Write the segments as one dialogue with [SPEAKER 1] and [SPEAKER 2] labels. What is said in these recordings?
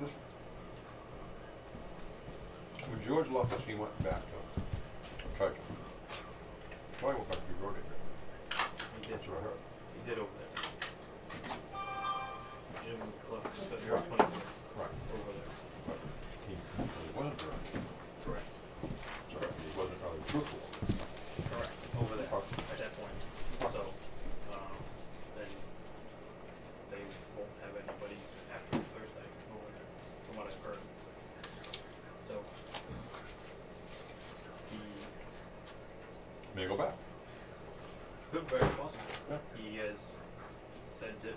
[SPEAKER 1] This, when George left us, he went back to Churchill. Probably went back to the road agent.
[SPEAKER 2] He did,
[SPEAKER 1] That's what I heard.
[SPEAKER 2] he did over there. Jim left
[SPEAKER 1] Yeah.
[SPEAKER 2] February twenty-fourth
[SPEAKER 1] Right.
[SPEAKER 2] over there.
[SPEAKER 1] But he he wasn't direct,
[SPEAKER 2] Correct.
[SPEAKER 1] so he wasn't really truthful.
[SPEAKER 2] Correct, over there,
[SPEAKER 1] Okay.
[SPEAKER 2] at that point. So, um, then they won't have anybody after Thursday over there, from what I've heard. So, he
[SPEAKER 1] May go back.
[SPEAKER 2] could very possibly,
[SPEAKER 1] Yeah.
[SPEAKER 2] he has said that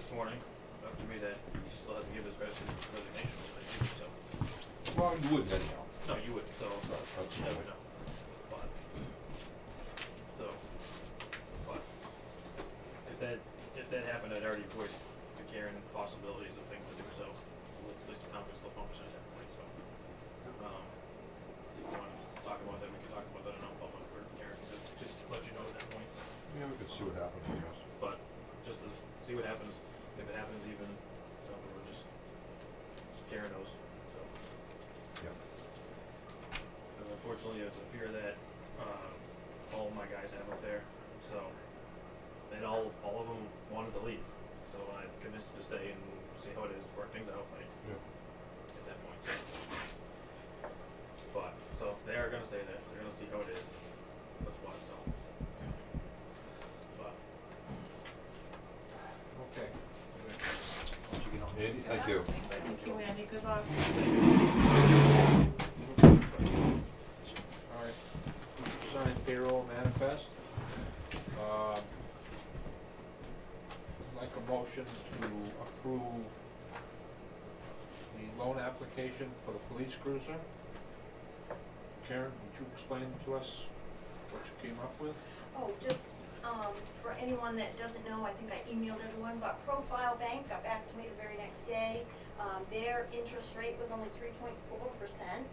[SPEAKER 2] this morning, up to me, that he still hasn't given his res- his resignation, so,
[SPEAKER 1] Well, you wouldn't anyhow.
[SPEAKER 2] no, you would, so,
[SPEAKER 1] But that's-
[SPEAKER 2] you never know. But, so, but, if that, if that happened, I'd already voiced to Karen possibilities of things to do, so, let's just time we still function at that point, so. Um, if you want to talk about that, we can talk about that in non-public, or Karen, can just, just let you know at that point, so.
[SPEAKER 1] Yeah, we could see what happens, I guess.
[SPEAKER 2] But, just to see what happens, if it happens even, so, we're just, just Karen knows, so.
[SPEAKER 1] Yeah.
[SPEAKER 2] Because unfortunately, Uh, it's a fear that um, all my guys have up there. So, and all all of them wanted to leave. So I've convinced them to stay and see how it is, work things out, like
[SPEAKER 1] Yeah.
[SPEAKER 2] at that point. So. But so they are gonna stay there. They're gonna see how it is. That's why. So, but
[SPEAKER 3] Okay.
[SPEAKER 2] once you get home,
[SPEAKER 1] Andy, thank you.
[SPEAKER 4] Thank you, Andy, good luck.
[SPEAKER 3] All right. Signed payroll manifest. Um, Like a motion to approve the loan application for the police cruiser. Karen, would you explain to us what you came up with?
[SPEAKER 4] Oh, just, um, for anyone that doesn't know, I think I emailed everyone, but Profile Bank got back to me the very next day. Um, their interest rate was only three point four percent.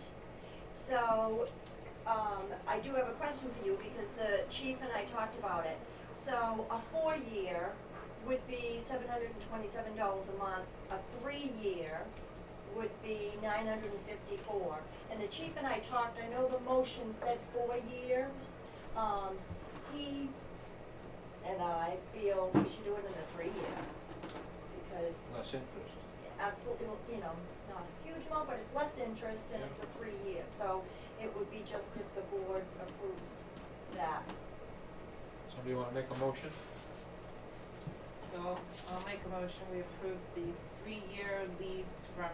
[SPEAKER 4] So, um, I do have a question for you because the chief and I talked about it. So a four-year would be seven hundred and twenty-seven dollars a month. A three-year would be nine hundred and fifty-four. And the chief and I talked, I know the motion said four years. Um, he and I feel we should do it in a three-year because
[SPEAKER 3] Less interest.
[SPEAKER 4] absolutely, you know, not a huge amount, but it's less interest and it's a three-year. So it would be just if the board approves that.
[SPEAKER 3] Somebody wanna make a motion?
[SPEAKER 5] So I'll make a motion, we approve the three-year lease from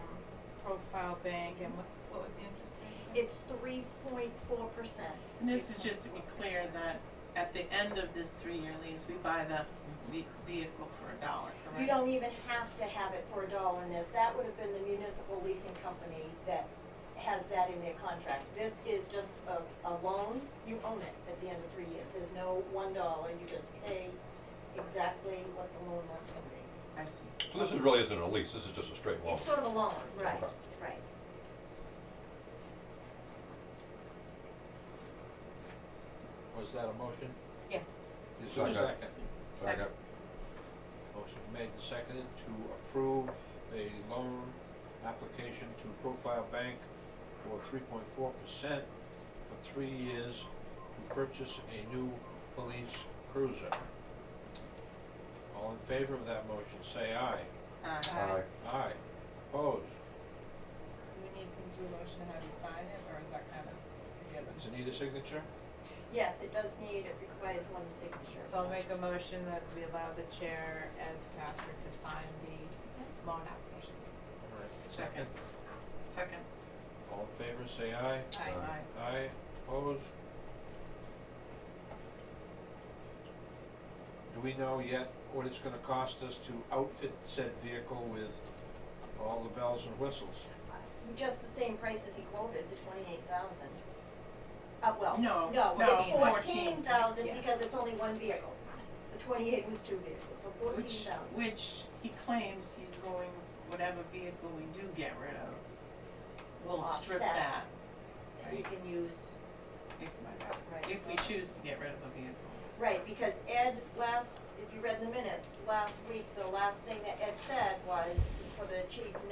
[SPEAKER 5] Profile Bank, and what's, what was the interest rate?
[SPEAKER 4] It's three point four percent.
[SPEAKER 6] And this is just to be clear that at the end of this three-year lease, we buy the ve- vehicle for a dollar, correct?
[SPEAKER 4] You don't even have to have it for a dollar in this. That would have been the municipal leasing company that has that in their contract. This is just a, a loan. You own it at the end of three years. There's no one dollar. You just pay exactly what the loan was gonna be.
[SPEAKER 6] I see.
[SPEAKER 1] So this is really isn't a lease, this is just a straight loan.
[SPEAKER 4] It's sort of a loan, right,
[SPEAKER 1] Okay.
[SPEAKER 4] right.
[SPEAKER 3] Was that a motion?
[SPEAKER 5] Yeah.
[SPEAKER 3] Is there a
[SPEAKER 1] Second.
[SPEAKER 3] second?
[SPEAKER 1] Second.
[SPEAKER 3] Motion made and seconded to approve a loan application to Profile Bank for three point four percent for three years to purchase a new police cruiser. All in favor of that motion, say aye.
[SPEAKER 6] Uh,
[SPEAKER 1] Aye.
[SPEAKER 3] Aye. Opposed?
[SPEAKER 5] Do we need to do a motion to have you sign it, or is that kind of forgiven?
[SPEAKER 3] Does it need a E signature?
[SPEAKER 4] Yes, it does need, it requires one signature.
[SPEAKER 5] So I'll make a motion that we allow the chair and pastor to sign the loan application.
[SPEAKER 3] All right.
[SPEAKER 6] Second. Second.
[SPEAKER 3] All in favor, say
[SPEAKER 1] Aye.
[SPEAKER 3] aye.
[SPEAKER 6] Aye.
[SPEAKER 3] Aye, opposed? Do we know yet what it's gonna cost us to outfit said vehicle with all the bells and whistles?
[SPEAKER 4] Just the same price as he quoted, the twenty-eight thousand. Uh, well,
[SPEAKER 6] No,
[SPEAKER 4] no,
[SPEAKER 6] no,
[SPEAKER 4] it's fourteen
[SPEAKER 6] 14,000,
[SPEAKER 4] thousand
[SPEAKER 5] yeah.
[SPEAKER 4] because it's only one vehicle. The twenty-eight was two vehicles, so fourteen
[SPEAKER 6] Which,
[SPEAKER 4] thousand.
[SPEAKER 6] which he claims he's going, whatever vehicle we do get rid of, we'll strip
[SPEAKER 4] Offset.
[SPEAKER 6] that
[SPEAKER 4] And you can use,
[SPEAKER 6] if,
[SPEAKER 4] Right.
[SPEAKER 6] if we choose to get rid of the vehicle.
[SPEAKER 4] right, because Ed last, if you read the minutes, last week, the last thing that Ed said was for the chief